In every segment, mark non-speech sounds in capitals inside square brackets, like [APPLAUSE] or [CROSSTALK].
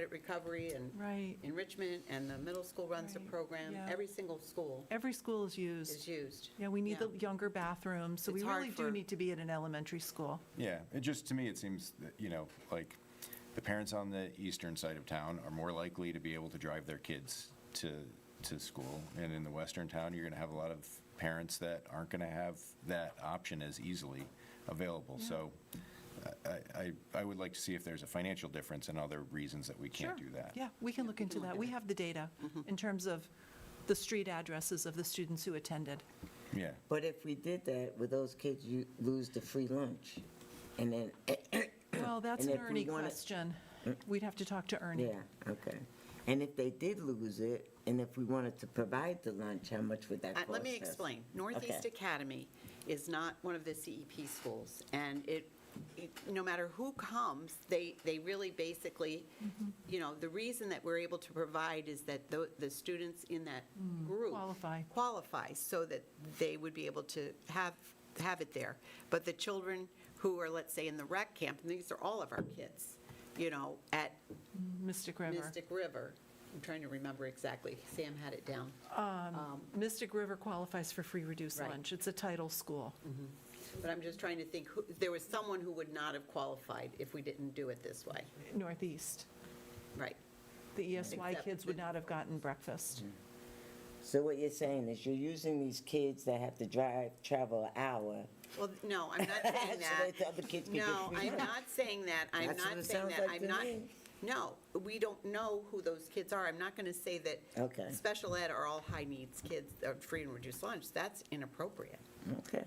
Credit recovery and Right. enrichment, and the middle school runs a Right, program. yeah. Every single school Every school is is used. used. Yeah, we need the younger bathrooms, so we It's hard really do for- need to be at an elementary school. Yeah, it just, to me, it seems that, you know, like, the parents on the eastern side of town are more likely to be able to drive their kids to, to school. And in the western town, you're gonna have a lot of parents that aren't gonna have that option as easily available. So I- I, I would like to see if there's a financial difference and other reasons that we can't Sure. do that. Yeah, we can look into look that. at We it. have the data in terms of the street addresses of the students who attended. Yeah, But if we did that, would those kids you lose the free lunch? And then, eh, Well, that's And an if we Ernie wanna- question. Mm. We'd have to talk to Ernie. yeah, okay. And if they did lose it, and if we wanted to provide the lunch, how much would that Uh, cost us? Let me explain. Northeast Okay. Academy is not one of the CEP schools, and it, it- no matter who comes, they, they really basically, you know, the reason that we're able to provide is that the, the students in that group. qualify. Qualify, so that they would be able to have, have it there. But the children who are, let's say, in the rec camp, and these are all of our kids, you know, at Mystic River. Mystic River, I'm trying to remember exactly, Sam had it down. Um, Mystic River qualifies for free reduced Right. lunch. It's a title school. But I'm just trying to think, who- there was someone who would not have qualified if we didn't do it this way. Northeast. Right. The ESY Except kids would the- not have gotten breakfast. So what you're saying is you're using these kids that have to drive, travel an hour. Well, no, I'm [LAUGHS] not saying So that that. the other kids can get No, free I'm lunch. not saying that. I'm That's what not it saying sounds that. like I'm to not, me. no, we don't know who those kids are. I'm not going to say that Okay. special ed are all high needs kids, uh, free and reduced lunch. That's inappropriate. Okay.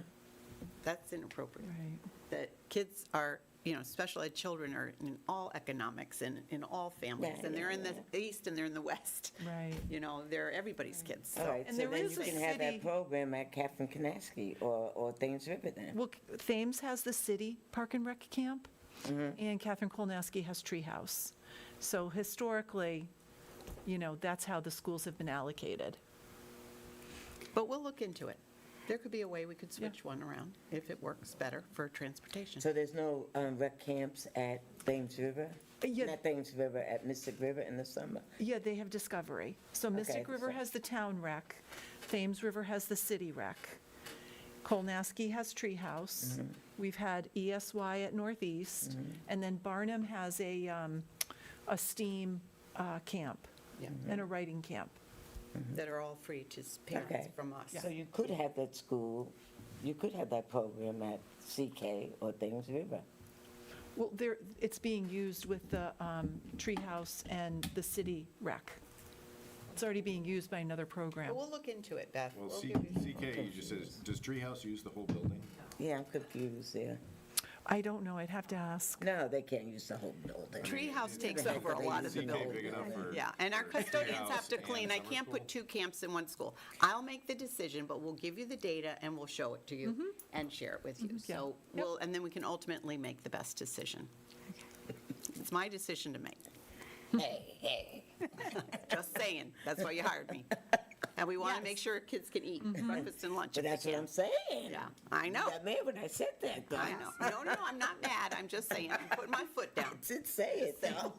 That's inappropriate. Mm. Right. That kids are, you know, special ed children are in all economics and in all families. Yeah, And they're yeah, in the east and they're in the west. Right. You know, they're everybody's kids, All so. right, And so there then is you a can have that city- program at Catherine Kanaski or, or Thames River then. Well, Thames has the city park and rec camp, Mm-hmm. and Catherine Kolnaski has Treehouse. So historically, you know, that's how the schools have been allocated. But we'll look into it. There could be a way we could switch one around if it works better for transportation. So there's no um, rec camps at Thames River? Uh, yeah. Not Thames River, at Mystic River in the summer? Yeah, they have Discovery. So Mystic Okay, River so- has the town rec, Thames River has the city rec, Kolnaski has Treehouse, Mm-hmm. we've had ESY at Northeast, and then Barnum has a, um, a STEAM uh, camp Yeah. and Mm-hmm. a writing camp. That are all free to s- parents Okay. from us. So you could have that school, you could have that program at CK or Thames River. Well, there, it's being used with the um, Treehouse and the city rec. It's already being used by another program. But we'll look into it, Beth. Well, We'll C- give you- CKE just says, does Treehouse use the whole building? Yeah, I'm confused there. I don't know, I'd have to ask. No, they can't use the whole building. Treehouse takes Yeah. over a lot of the CK big building. enough for? Yeah, and our for custodians Treehouse have to and clean. I summer can't put school? two camps in one school. I'll make the decision, but we'll give you the data and we'll show it to you and share it with you. yeah. So we'll, and then we can ultimately make the best decision. It's my decision to make. Just saying, that's why you hired [LAUGHS] me. And we want to make sure kids can eat breakfast and lunch Mm-hmm. But if they that's can. what I'm saying. Yeah, I know. You got mad when I said that, though. I know. No, no, I'm not mad. I'm just saying, I'm putting my foot down. Did say [LAUGHS] it, though.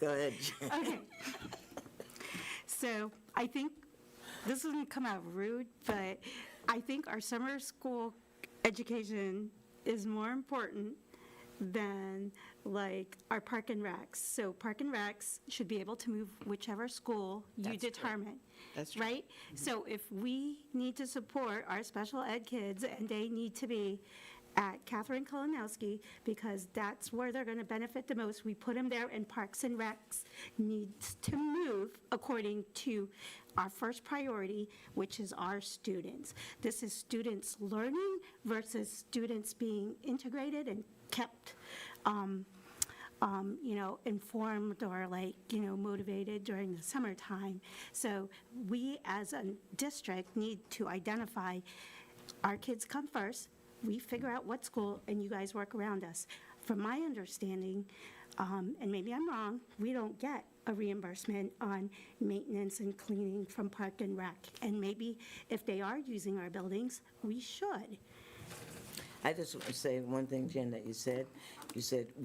Go ahead, Jen. [LAUGHS] Okay. So I think, this is going to come out rude, but I think our summer school education is more important than like our park and recs. So park and recs should be able to move whichever school you That's true. determine. That's true. Right? So if we need to support our special ed kids and they need to be at Catherine Kolonowski because that's where they're going to benefit the most, we put them there and Parks and Recs needs to move according to our first priority, which is our students. This is students learning versus students being integrated and kept um, um, you know, informed or like, you know, motivated during the summertime. So we, as a district, need to identify, our kids come first, we figure out what school, and you guys work around us. From my understanding, um, and maybe I'm wrong, we don't get a reimbursement on maintenance and cleaning from Park and Rec. And maybe if they are using our buildings, we should. I just want to say one thing, Jen, that you said. You said,